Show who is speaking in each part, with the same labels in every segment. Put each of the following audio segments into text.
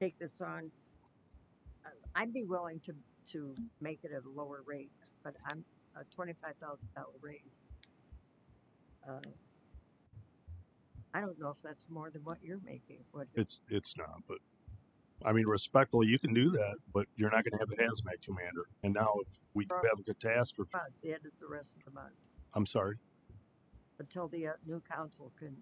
Speaker 1: take this on, uh, I'd be willing to, to make it at a lower rate, but I'm a twenty-five thousand dollar raise. uh, I don't know if that's more than what you're making, what,
Speaker 2: It's it's not, but I mean, respectfully, you can do that, but you're not going to have a hazmat commander. And now, if we do have a catastrophe,
Speaker 1: about the end of the rest of the month,
Speaker 2: I'm sorry.
Speaker 1: until the uh, new council can,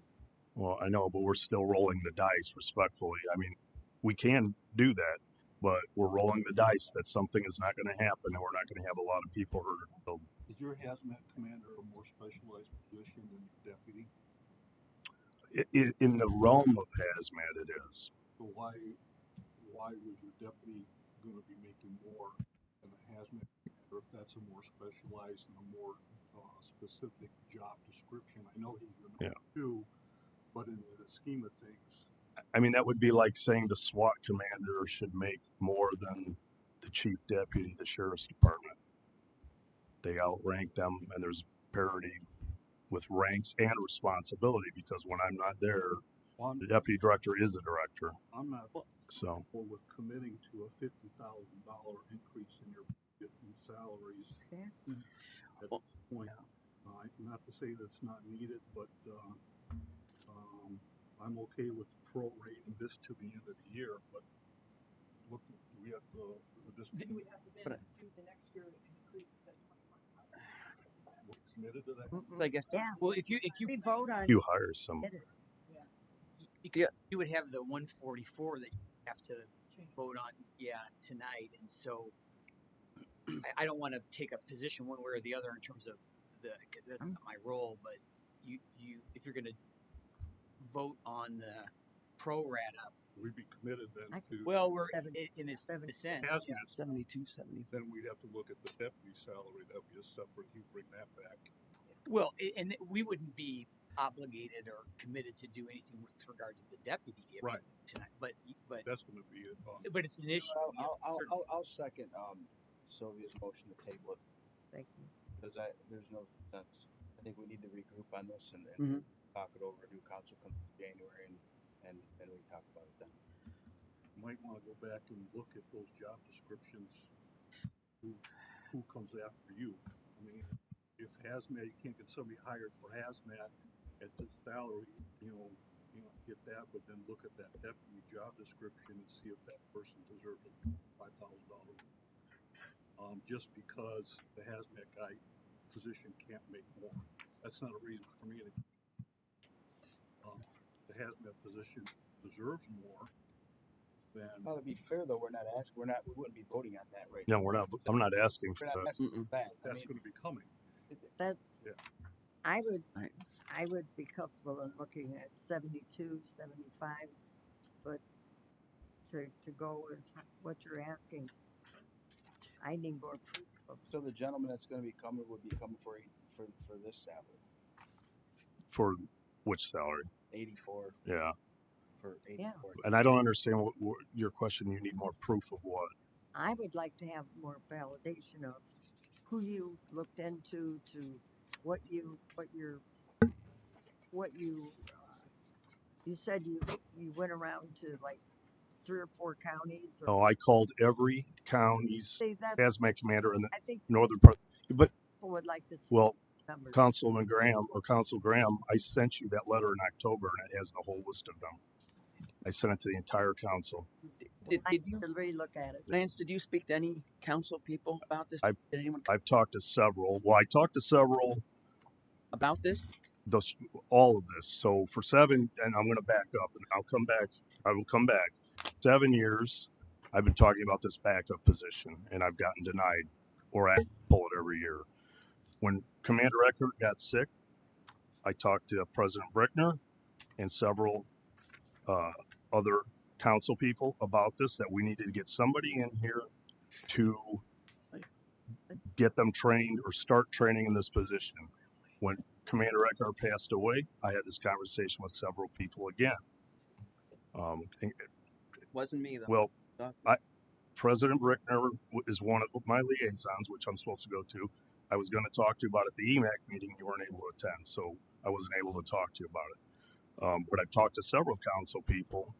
Speaker 2: Well, I know, but we're still rolling the dice. Respectfully, I mean, we can do that, but we're rolling the dice that something is not going to happen, and we're not going to have a lot of people hurt. So,
Speaker 3: Is your hazmat commander a more specialized position than your deputy?
Speaker 2: i i in the realm of hazmat, it is.
Speaker 3: So why, why was your deputy gonna be making more than a hazmat commander if that's a more specialized and a more, uh, specific job description? I know he's your number two, but in the scheme of things,
Speaker 2: I mean, that would be like saying the SWAT commander should make more than the chief deputy, the sheriff's department. They outrank them, and there's parity with ranks and responsibility because when I'm not there,
Speaker 3: well, I'm,
Speaker 2: the deputy director is the director.
Speaker 3: I'm not
Speaker 2: So,
Speaker 3: comfortable with committing to a fifty thousand dollar increase in your budget and salaries point. Uh, not to say that's not needed, but, uh, um, I'm okay with prorating this to the end of the year, but look, we have the, this,
Speaker 4: The-
Speaker 3: we're
Speaker 4: But I-
Speaker 3: committed to that.
Speaker 4: So I guess.
Speaker 1: Mm, Yeah.
Speaker 4: Well, if you if you
Speaker 1: we vote on,
Speaker 2: you hire some.
Speaker 4: because you would have the 144 that you have to vote on, yeah, tonight, and so I, I don't want to take a position one way or the other in terms of the 'cause that's
Speaker 1: Mm.
Speaker 4: not my role, but you you if you're going to vote on the pro rata,
Speaker 3: We'd be committed then
Speaker 1: I-
Speaker 3: to,
Speaker 4: well, we're
Speaker 1: Seven-
Speaker 4: in, in, a, in a sense,
Speaker 3: As-
Speaker 4: yeah,
Speaker 5: Seventy-two, seventy.
Speaker 3: then we'd have to look at the deputy salary, that'd be a separate, you bring that back.
Speaker 4: Well, a- and we wouldn't be obligated or committed to do anything with regard to the deputy if-
Speaker 3: Right.
Speaker 4: tonight, but but
Speaker 3: That's gonna be it. um,
Speaker 4: but it's an issue.
Speaker 5: I'll,
Speaker 4: yeah,
Speaker 5: I'll- I'll,
Speaker 4: certainly.
Speaker 5: I'll, I'll second, um, Sylvia's motion to table it,
Speaker 1: thank you.
Speaker 5: because I, there's no, that's, I think we need to regroup on this and, and talk it over, new council come January and, and, and we talk about it then.
Speaker 3: might wanna go back and look at those job descriptions. Who, who comes after you? I mean, if hazmat, you can't get somebody hired for hazmat at this salary, you know, you know, get that, but then look at that deputy job description and see if that person deserves a five thousand dollar. Um, just because the hazmat guy position can't make more, that's not a reason for me to. Um, the hazmat position deserves more than.
Speaker 5: Now, to be fair though, we're not asking, we're not, we wouldn't be voting on that right
Speaker 2: No,
Speaker 5: now.
Speaker 2: we're not. I'm not asking for
Speaker 5: We're not
Speaker 2: that.
Speaker 5: asking for that, I
Speaker 3: that's
Speaker 5: mean,
Speaker 3: gonna be coming.
Speaker 1: That's,
Speaker 3: Yeah.
Speaker 1: I would,
Speaker 5: Right.
Speaker 1: I would be comfortable in looking at seventy-two, seventy-five, but to, to go is what you're asking. I need more proof of,
Speaker 5: so the gentleman that's gonna be coming would be coming for, eight- for, for this salary,
Speaker 2: For which salary?
Speaker 5: eighty-four
Speaker 2: Yeah.
Speaker 5: for eighty-four.
Speaker 2: And I don't understand what, what your question. You need more proof of what?
Speaker 1: I would like to have more validation of who you looked into, to what you, what your, what you, uh, you said you, you went around to like three or four counties or.
Speaker 2: Oh, I called every county's
Speaker 1: See, that's,
Speaker 2: hazmat commander in the
Speaker 1: I think
Speaker 2: northern part. But
Speaker 1: people would like to see
Speaker 2: well,
Speaker 1: numbers.
Speaker 2: Councilman Graham or Council Graham, I sent you that letter in October and it has the whole list of them. I sent it to the entire council.
Speaker 6: Did,
Speaker 1: I
Speaker 6: did
Speaker 1: need
Speaker 6: you,
Speaker 1: to relook at it.
Speaker 6: Lance, did you speak to any council people about this?
Speaker 2: I-
Speaker 6: Did anyone
Speaker 2: I've talked to several, well, I talked to several,
Speaker 6: about this?
Speaker 2: those, all of this. So for seven, and I'm gonna back up and I'll come back, I will come back. Seven years, I've been talking about this backup position and I've gotten denied or I pull it every year. When Commander Eckert got sick, I talked to President Brickner and several uh, other council people about this that we needed to get somebody in here to get them trained or start training in this position. When Commander Eckhart passed away, I had this conversation with several people again. Um, and-
Speaker 6: Wasn't me though.
Speaker 2: well,
Speaker 6: Doc?
Speaker 2: I, President Brickner w- is one of my liaisons, which I'm supposed to go to. I was going to talk to you about it at the E EMAC meeting. You weren't able to attend, so I wasn't able to talk to you about it. Um, but I've talked to several council people